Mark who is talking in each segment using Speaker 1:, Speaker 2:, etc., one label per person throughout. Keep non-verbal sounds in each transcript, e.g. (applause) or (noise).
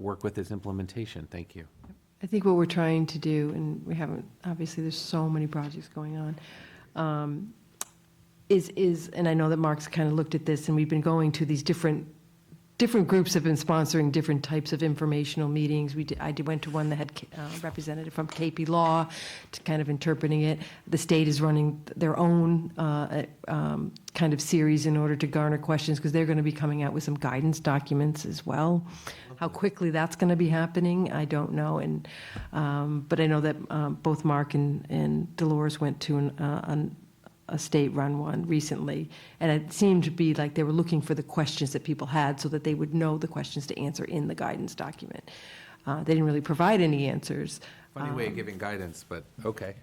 Speaker 1: work with its implementation. Thank you.
Speaker 2: I think what we're trying to do, and we haven't, obviously, there's so many projects going on, um, is, is, and I know that Mark's kind of looked at this, and we've been going to these different, different groups have been sponsoring different types of informational meetings. We, did- I did- went to one that had a representative from KP Law to kind of interpreting it. The state is running their own uh, um, kind of series in order to garner questions, because they're going to be coming out with some guidance documents as well. How quickly that's going to be happening, I don't know, and, um, but I know that um, both Mark and and Dolores went to an, uh, an a state-run one recently, and it seemed to be like they were looking for the questions that people had so that they would know the questions to answer in the guidance document. Uh, They didn't really provide any answers.
Speaker 1: Funny way
Speaker 3: Um,
Speaker 1: of giving guidance, but okay.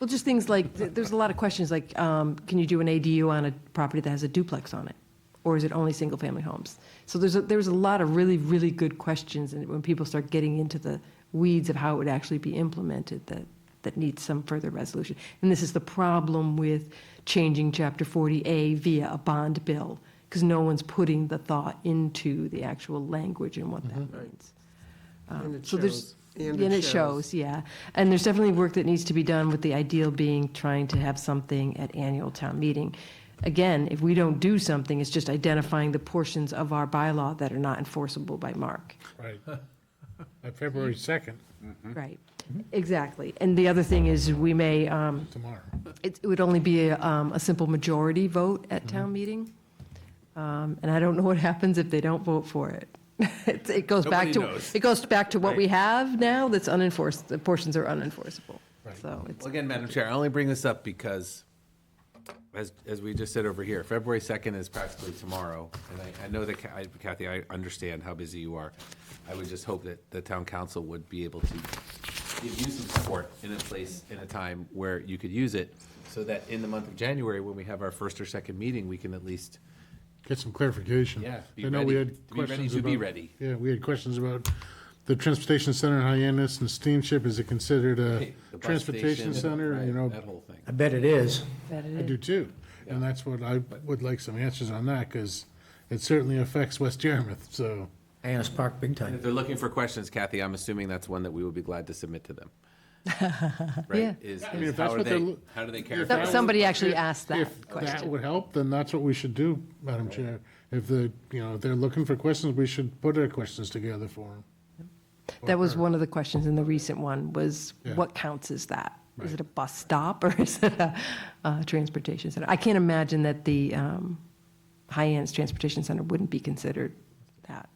Speaker 2: Well, just things like, th- there's a lot of questions like, um, can you do an ADU on a property that has a duplex on it? Or is it only single-family homes? So there's, a- there's a lot of really, really good questions, and when people start getting into the weeds of how it would actually be implemented, that, that needs some further resolution. And this is the problem with changing Chapter 40A via a bond bill, because no one's putting the thought into the actual language and what that means.
Speaker 4: And it
Speaker 2: So there's,
Speaker 4: shows.
Speaker 2: and it shows, yeah. And there's definitely work that needs to be done with the ideal being trying to have something at annual town meeting. Again, if we don't do something, it's just identifying the portions of our bylaw that are not enforceable by Mark.
Speaker 5: Right. (laughs) On February 2nd,
Speaker 2: Right, exactly. And the other thing is, we may, um,
Speaker 5: tomorrow.
Speaker 2: it it would only be a, um, a simple majority vote at
Speaker 1: Mm-hmm.
Speaker 2: town meeting. Um, And I don't know what (laughs) happens if they don't vote for it. (laughs) It it goes back
Speaker 1: Nobody
Speaker 2: to,
Speaker 1: knows.
Speaker 2: it goes back to what we have now that's unenforced, the portions are unenforceable. So it's,
Speaker 1: Well, Again, Madam Chair, I only bring this up because, as, as we just said over here, February 2nd is practically tomorrow. And I, I know that Ca- I- Kathy, I understand how busy you are. I would just hope that the town council would be able to give you some support in a place, in a time where you could use it, so that in the month of January, when we have our first or second meeting, we can at least,
Speaker 5: Get some clarification.
Speaker 1: Yeah, be
Speaker 5: I know we
Speaker 1: ready-
Speaker 5: had
Speaker 1: be ready
Speaker 5: questions
Speaker 1: to be
Speaker 5: about-
Speaker 1: ready.
Speaker 5: Yeah, we had questions about the transportation center in Hyannis and steamship. Is it considered a
Speaker 1: (laughs) the bus
Speaker 5: transportation
Speaker 1: station,
Speaker 5: center? You
Speaker 1: right,
Speaker 5: know,
Speaker 1: That whole thing.
Speaker 3: I bet it is.
Speaker 2: that it
Speaker 5: I
Speaker 2: is.
Speaker 5: do too. And that's what I would like some answers on that because it certainly affects West Yarmouth. So
Speaker 3: Annis Park, big
Speaker 1: And If
Speaker 3: time.
Speaker 1: they're looking for questions, Kathy, I'm assuming that's one that we will be glad to submit to them.
Speaker 2: Yeah.
Speaker 1: Right? Is,
Speaker 5: mean,
Speaker 1: is
Speaker 5: if that's
Speaker 1: how are
Speaker 5: what they're
Speaker 1: they,
Speaker 5: lo-
Speaker 1: how do they care?
Speaker 5: if that was-
Speaker 2: Somebody actually asked that
Speaker 5: if that
Speaker 2: question.
Speaker 5: would help, then that's what we should do, Madam Chair. If the, you know, if they're looking for questions, we should put our questions together for them.
Speaker 2: That was one of the questions in the recent one, was
Speaker 5: Yeah.
Speaker 2: what counts as that? Is it a bus stop or (laughs) is it a uh, transportation center? I can't imagine that the um, Hyannis Transportation Center wouldn't be considered that.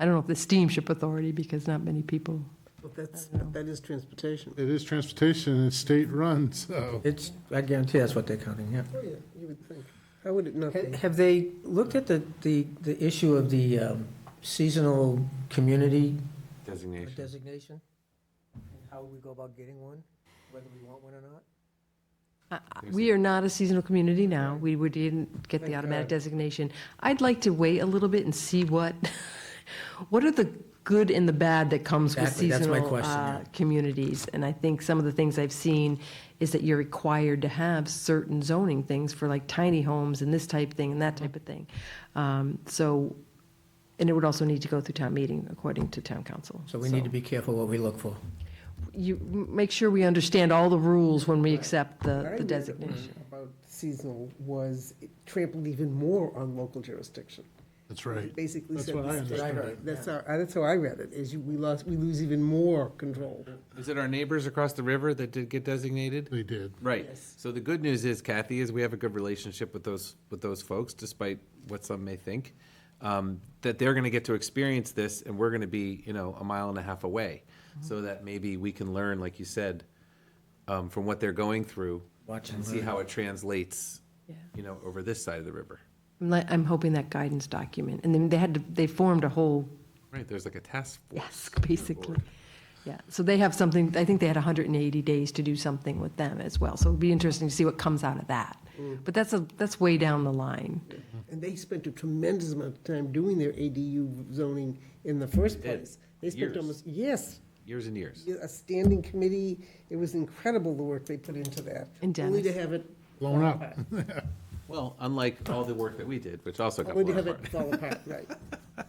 Speaker 2: I don't know if the steamship authority, because not many people,
Speaker 4: That's, that is transportation.
Speaker 5: It is transportation, and it's state-run, so.
Speaker 3: It's, I guarantee that's what they're counting, yeah.
Speaker 4: Oh, yeah, you would think. How would it not
Speaker 3: Ha-
Speaker 4: be?
Speaker 3: Have they looked at the, the, the issue of the um, seasonal community
Speaker 1: Designation.
Speaker 3: designation? And How we go about getting one, whether we want one or not?
Speaker 2: I- I- we are not a seasonal community now. We would- didn't get the
Speaker 3: Thank
Speaker 2: automatic
Speaker 3: God.
Speaker 2: designation. I'd like to wait a little bit and see what, (laughs) what are the good and the bad that comes with
Speaker 3: Exactly, that's my
Speaker 2: seasonal
Speaker 3: question,
Speaker 2: uh,
Speaker 3: yeah.
Speaker 2: communities? And I think some of the things I've seen is that you're required to have certain zoning things for like tiny homes and this type thing and that type of thing. Um, So, and it would also need to go through town meeting according to town council.
Speaker 3: So we need to be careful what we look for.
Speaker 2: You, make sure we understand all the rules when we accept
Speaker 4: What I
Speaker 2: Uh, the the
Speaker 4: read
Speaker 2: designation.
Speaker 4: About seasonal was it trampled even more on local jurisdiction.
Speaker 5: That's right.
Speaker 4: Basically
Speaker 5: That's
Speaker 4: said.
Speaker 5: what
Speaker 4: the
Speaker 5: I
Speaker 4: state-
Speaker 5: understood
Speaker 3: it.
Speaker 4: That's how, uh, that's how I read it, is you, we lost, we lose even more control.
Speaker 1: Is it our neighbors across the river that did get designated?
Speaker 5: They did.
Speaker 1: Right.
Speaker 4: Yes.
Speaker 1: So the good news is Kathy, is we have a good relationship with those, with those folks, despite what some may think. Um, that they're gonna get to experience this and we're gonna be, you know, a mile and a half away. So that maybe we can learn, like you said, um, from what they're going through.
Speaker 3: Watch and
Speaker 1: And see
Speaker 3: learn.
Speaker 1: how it translates,
Speaker 2: Yeah.
Speaker 1: you know, over this side of the river.
Speaker 2: I'm like, I'm hoping that guidance document, and then they had to, they formed a whole
Speaker 1: Right, there's like a task force.
Speaker 2: desk, (laughs) basically. Yeah, so they have something, I think they had 180 days to do something with them as well, so it'd be interesting to see what comes out of that. But that's a, that's way down the line.
Speaker 4: And they spent a tremendous amount of time doing their ADU zoning in the first
Speaker 1: did.
Speaker 4: place. They spent
Speaker 1: Years.
Speaker 4: almost, yes,
Speaker 1: Years and years.
Speaker 4: a standing committee. It was incredible the work they put into that.
Speaker 2: And
Speaker 4: Only to
Speaker 2: Dennis.
Speaker 4: have it,
Speaker 5: Blown up.
Speaker 1: Well, unlike all the work that we did, which also got
Speaker 4: only
Speaker 1: blown
Speaker 4: to have
Speaker 1: apart.
Speaker 4: it fall apart, right.